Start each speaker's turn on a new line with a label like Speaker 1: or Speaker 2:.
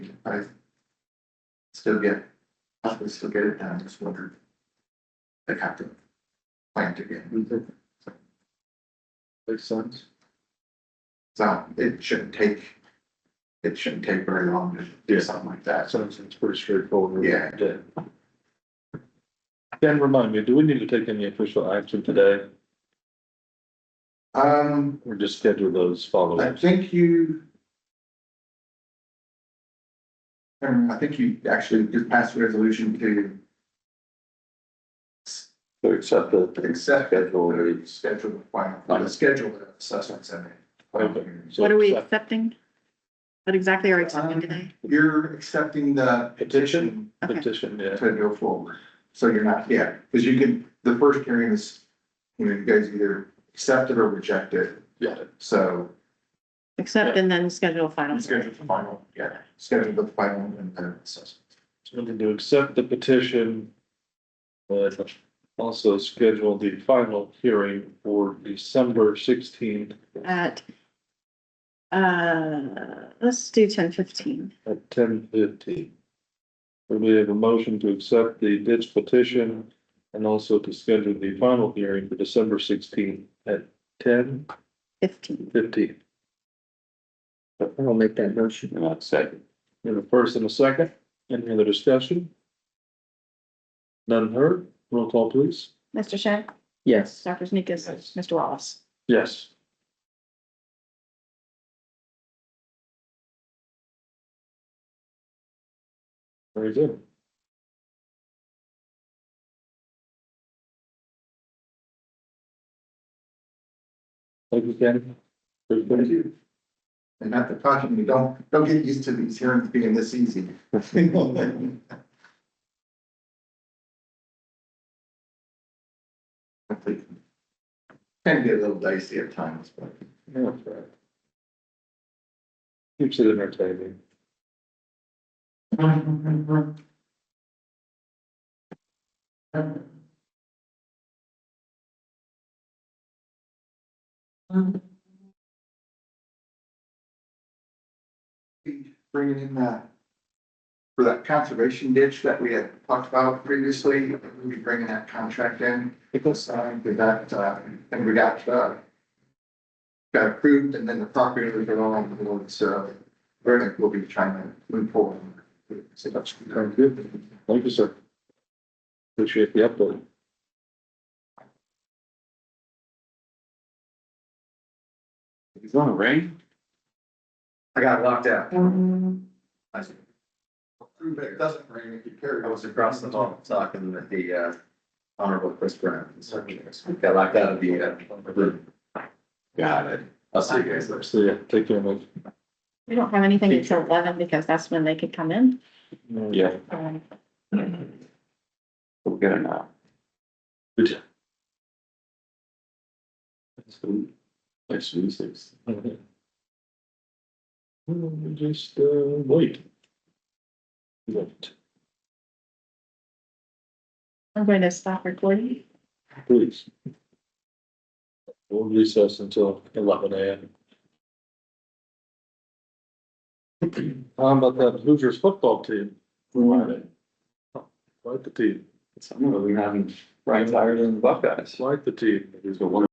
Speaker 1: I still get, I can still get it done, just wondered. They have to plant again. Makes sense. So it shouldn't take, it shouldn't take very long to do something like that.
Speaker 2: Sounds, it's pretty straightforward.
Speaker 1: Yeah.
Speaker 2: Dan, remind me, do we need to take any official action today
Speaker 1: Um,
Speaker 2: or just schedule those
Speaker 1: I
Speaker 2: follow-ups?
Speaker 1: think you. Um, I think you actually just passed a resolution to
Speaker 2: To accept the.
Speaker 1: accept it
Speaker 2: Schedule
Speaker 1: or
Speaker 2: it.
Speaker 1: schedule the final, uh, schedule the assessment center.
Speaker 3: What are we accepting? What exactly are we accepting
Speaker 1: Um,
Speaker 3: today?
Speaker 1: You're accepting the petition
Speaker 2: Petition? Petition, yeah.
Speaker 1: to go forward. So you're not, yeah, because you can, the first hearing is, you know, you guys either accept it or reject it.
Speaker 2: Yeah.
Speaker 1: So
Speaker 3: Accept and then schedule a final.
Speaker 1: schedule the final, yeah, schedule the final and then assessment.
Speaker 2: Wanted to accept the petition, but also schedule the final hearing for December sixteenth
Speaker 3: At, uh, let's do ten fifteen.
Speaker 2: at ten fifteen. We have a motion to accept the ditch petition and also to schedule the final hearing for December sixteenth at ten
Speaker 3: Fifteen.
Speaker 2: fifteen.
Speaker 4: I'll make that motion.
Speaker 2: And I'll second. We have a first and a second. Any other discussion? None heard? Roll call, please.
Speaker 3: Mr. Shay,
Speaker 4: Yes.
Speaker 3: Dr. Sneakers,
Speaker 2: Yes.
Speaker 3: Mr. Wallace.
Speaker 2: Yes. Very good. Thank you, Ken.
Speaker 1: Thank you. And not to caution you, don't, don't get used to these hearings being this easy. Hopefully Can get a little dicey at times, but.
Speaker 2: Yeah, that's right. Keeps it entertaining.
Speaker 1: Mm-hmm, Bringing in that, for that conservation ditch that we had talked about previously, we'll be bringing that contract in. Because, um, with that, uh, and we got, uh, got approved and then the property was along the board, so verdict will be trying to move forward. So that's
Speaker 2: Sounds good. Thank you, sir. Appreciate the update.
Speaker 5: It's gonna rain?
Speaker 1: I got locked out. Mm-hmm. But it doesn't rain if you carry.
Speaker 5: I was across the hall talking with the uh honorable Chris Brown. Got locked out of the uh room. Got it. I'll see you guys later.
Speaker 2: So, yeah, take care, mate.
Speaker 3: We don't have anything until eleven because that's when they could come in.
Speaker 5: Yeah.
Speaker 3: Um,
Speaker 5: We'll get it now. Next Tuesdays.
Speaker 2: Okay. Well, we Just, uh, wait. Wait,
Speaker 3: I'm going to stop recording.
Speaker 2: please. We'll recess until eleven AM. How about that Hoosiers football team? Like the team,
Speaker 5: Some of them having bright tires in the Buckeyes.
Speaker 2: like the team.
Speaker 5: There's a one